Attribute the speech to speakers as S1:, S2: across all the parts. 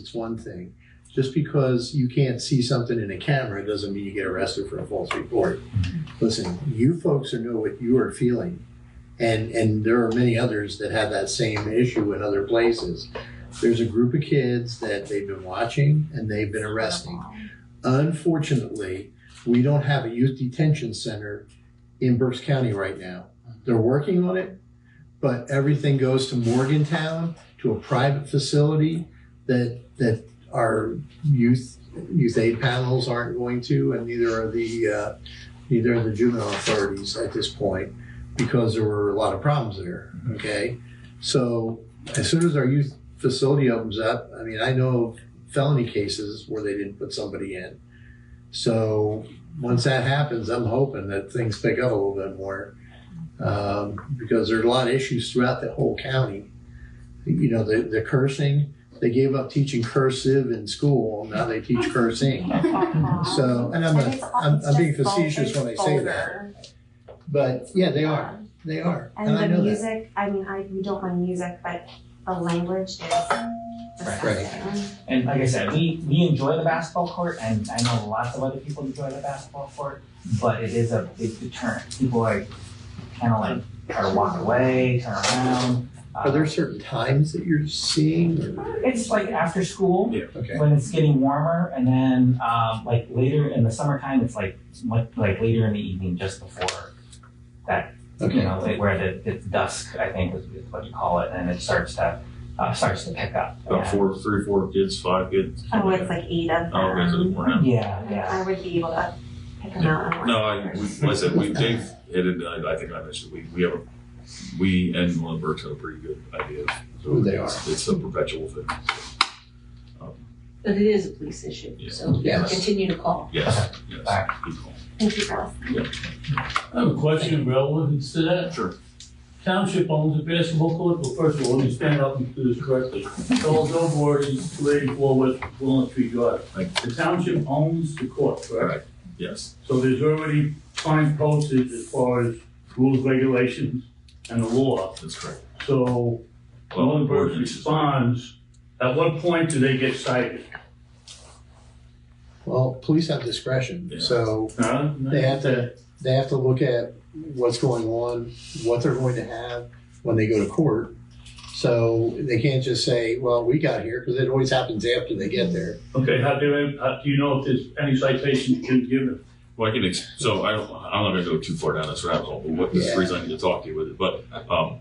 S1: it's one thing. Just because you can't see something in a camera doesn't mean you get arrested for a false report. Listen, you folks know what you are feeling. And, and there are many others that have that same issue in other places. There's a group of kids that they've been watching and they've been arresting. Unfortunately, we don't have a youth detention center in Berks County right now. They're working on it, but everything goes to Morgantown, to a private facility that, that our youth, youth aid panels aren't going to, and neither are the, uh, neither are the juvenile authorities at this point, because there were a lot of problems there, okay? So as soon as our youth facility opens up, I mean, I know felony cases where they didn't put somebody in. So once that happens, I'm hoping that things pick up a little bit more um, because there are a lot of issues throughout the whole county. You know, the, the cursing, they gave up teaching cursive in school, now they teach cursing. So, and I'm,
S2: Uh-huh. And it's
S1: a,
S2: all-
S1: I'm,
S2: it's
S1: I'm being
S2: just vulgar
S1: facetious when I say that,
S2: vulgar.
S1: but yeah, they are, they are.
S2: And,
S1: And I
S2: the
S1: know that.
S2: music, I mean, I we don't mind music, but the language is disgusting.
S3: And like I said, we, we enjoy the basketball court, and I know lots of other people enjoy the basketball court, but it is a big deterrent. People are kind of like try to walk away, turn around. Uh,
S1: Are there certain times that you're seeing or,
S3: It's like after school
S1: okay?
S3: when it's getting warmer, and then um, like later in the summertime, it's like mu- like later in the evening, just before that, you
S1: Okay.
S3: know, like where the, it's dusk, I think is is what you call it, and it starts to uh, starts to pick up.
S1: Oh.
S4: About four, three, four kids, five kids.
S2: Oh, it's like eight of them.
S4: Oh, okay, so we're not.
S3: Yeah, yeah.
S2: I would be able to pick them out. and
S4: No, I,
S2: watch
S4: we,
S2: them.
S4: like I said, we, Dave, it, had- I, I think I mentioned, we, we have, a we and Lindbergh's have a pretty good idea. of
S1: Who they
S4: It's it's a perpetual thing. Um,
S5: But it is a police issue,
S4: Yeah.
S5: so
S1: Yes.
S5: continue to call.
S4: Yes, yes.
S3: All right.
S4: good call.
S2: Thank you, girls.
S6: I have a question relevant to that.
S4: Sure.
S6: Township owns a basketball court, well, first of all, let me stand up and do this correctly. Charles Elmore is two eighty-four West Walnut Tree Drive.
S4: Thank
S6: The township owns the court, correct?
S4: Yes,
S6: So there's already fine posted as far as rules, regulations, and the law.
S4: that's correct.
S6: So
S4: Well,
S6: Lunenburg
S4: ordinance is-
S6: responds, at what point do they get cited?
S1: Well, police have discretion,
S4: Yeah.
S1: so
S6: Huh?
S1: They have to, they have to look at what's going on, what they're going to have when they go to court. So they can't just say, well, we got here, because it always happens after they get there.
S6: Okay, how do, how do you know if there's any citations been given?
S4: Well, I can, ex- so I don't, I'm not gonna go too far down this rabbit hole, but what, this
S1: Yeah.
S4: reason I need to talk to you with it, but, um,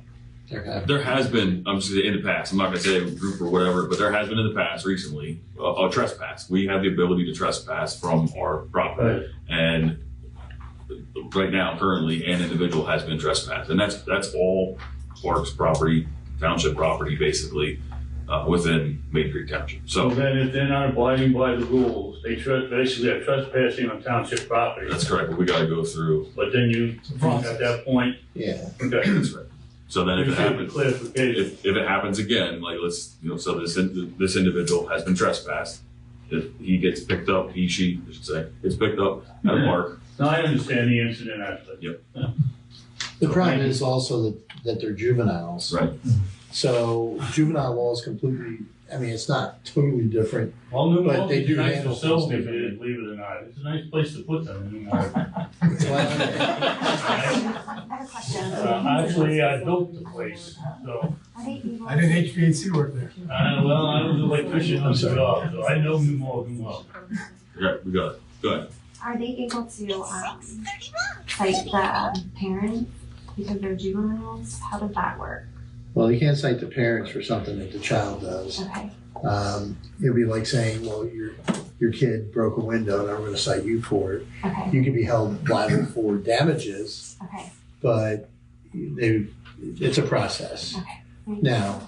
S1: They're kind
S4: There has been, I'm just in the past, I'm not gonna say a group or whatever, but there has been in the past recently, a, a trespass. We have the ability to trespass from our property. And right now, currently, an individual has been trespassed. And that's, that's all Clark's property, township property, basically, uh, within Main Creek Township.
S6: So
S4: So
S6: then if they're not abiding by the rules, they tr- basically are trespassing on township property.
S4: that's correct, but we gotta go through,
S6: But then you, at that point,
S1: of- Yeah,
S6: okay,
S4: that's right. So then if
S6: you
S4: it
S6: have the
S4: happens,
S6: clarification.
S4: if, if it happens again, like let's, you know, so this, in- this individual has been trespassed. If he gets picked up, he, she, I should say, gets picked up at a park,
S6: Now, I understand the incident aspect.
S1: the problem is also that, that they're juveniles.
S4: right?
S1: So juvenile law is completely, I mean, it's not totally different.
S6: Well, New
S1: But
S6: Malta
S1: they
S6: is
S1: do
S6: a nice
S1: handle
S6: facility,
S1: things differently.
S6: believe it or not. It's a nice place to put them, New Malta.
S2: I have a question.
S6: Uh, Actually, I built the place, so,
S2: Are they able-
S7: I did HVAC work there.
S6: uh, well, I was an electrician on the job, so I know New Malta well.
S4: Okay, we got it. Go ahead.
S2: Are they able to, um, cite the parents because they're juveniles? How does that work?
S1: Well, you can't cite the parents for something that the child does.
S2: Okay,
S1: Um, it'd be like saying, well, your, your kid broke a window and I'm gonna cite you for it.
S2: okay,
S1: You could be held liable for damages.
S2: okay.
S1: but they, it's a process. Now,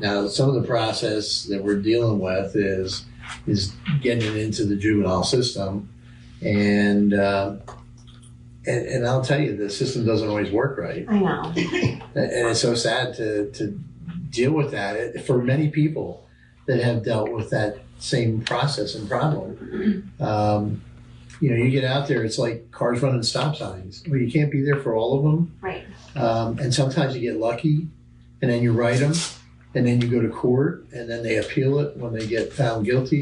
S1: now some of the process that we're dealing with is is getting it into the juvenile system, and uh, and, and I'll tell you the system doesn't always work right,
S2: I know.
S1: and and it's so sad to to deal with that It- for many people that have dealt with that same process and problem. Um, you know, you get out there, it's like cars running stop signs. Well, you can't be there for all of them.
S2: Right.
S1: Um, and sometimes you get lucky and then you write them and then you go to court, and then they appeal it when they get found guilty,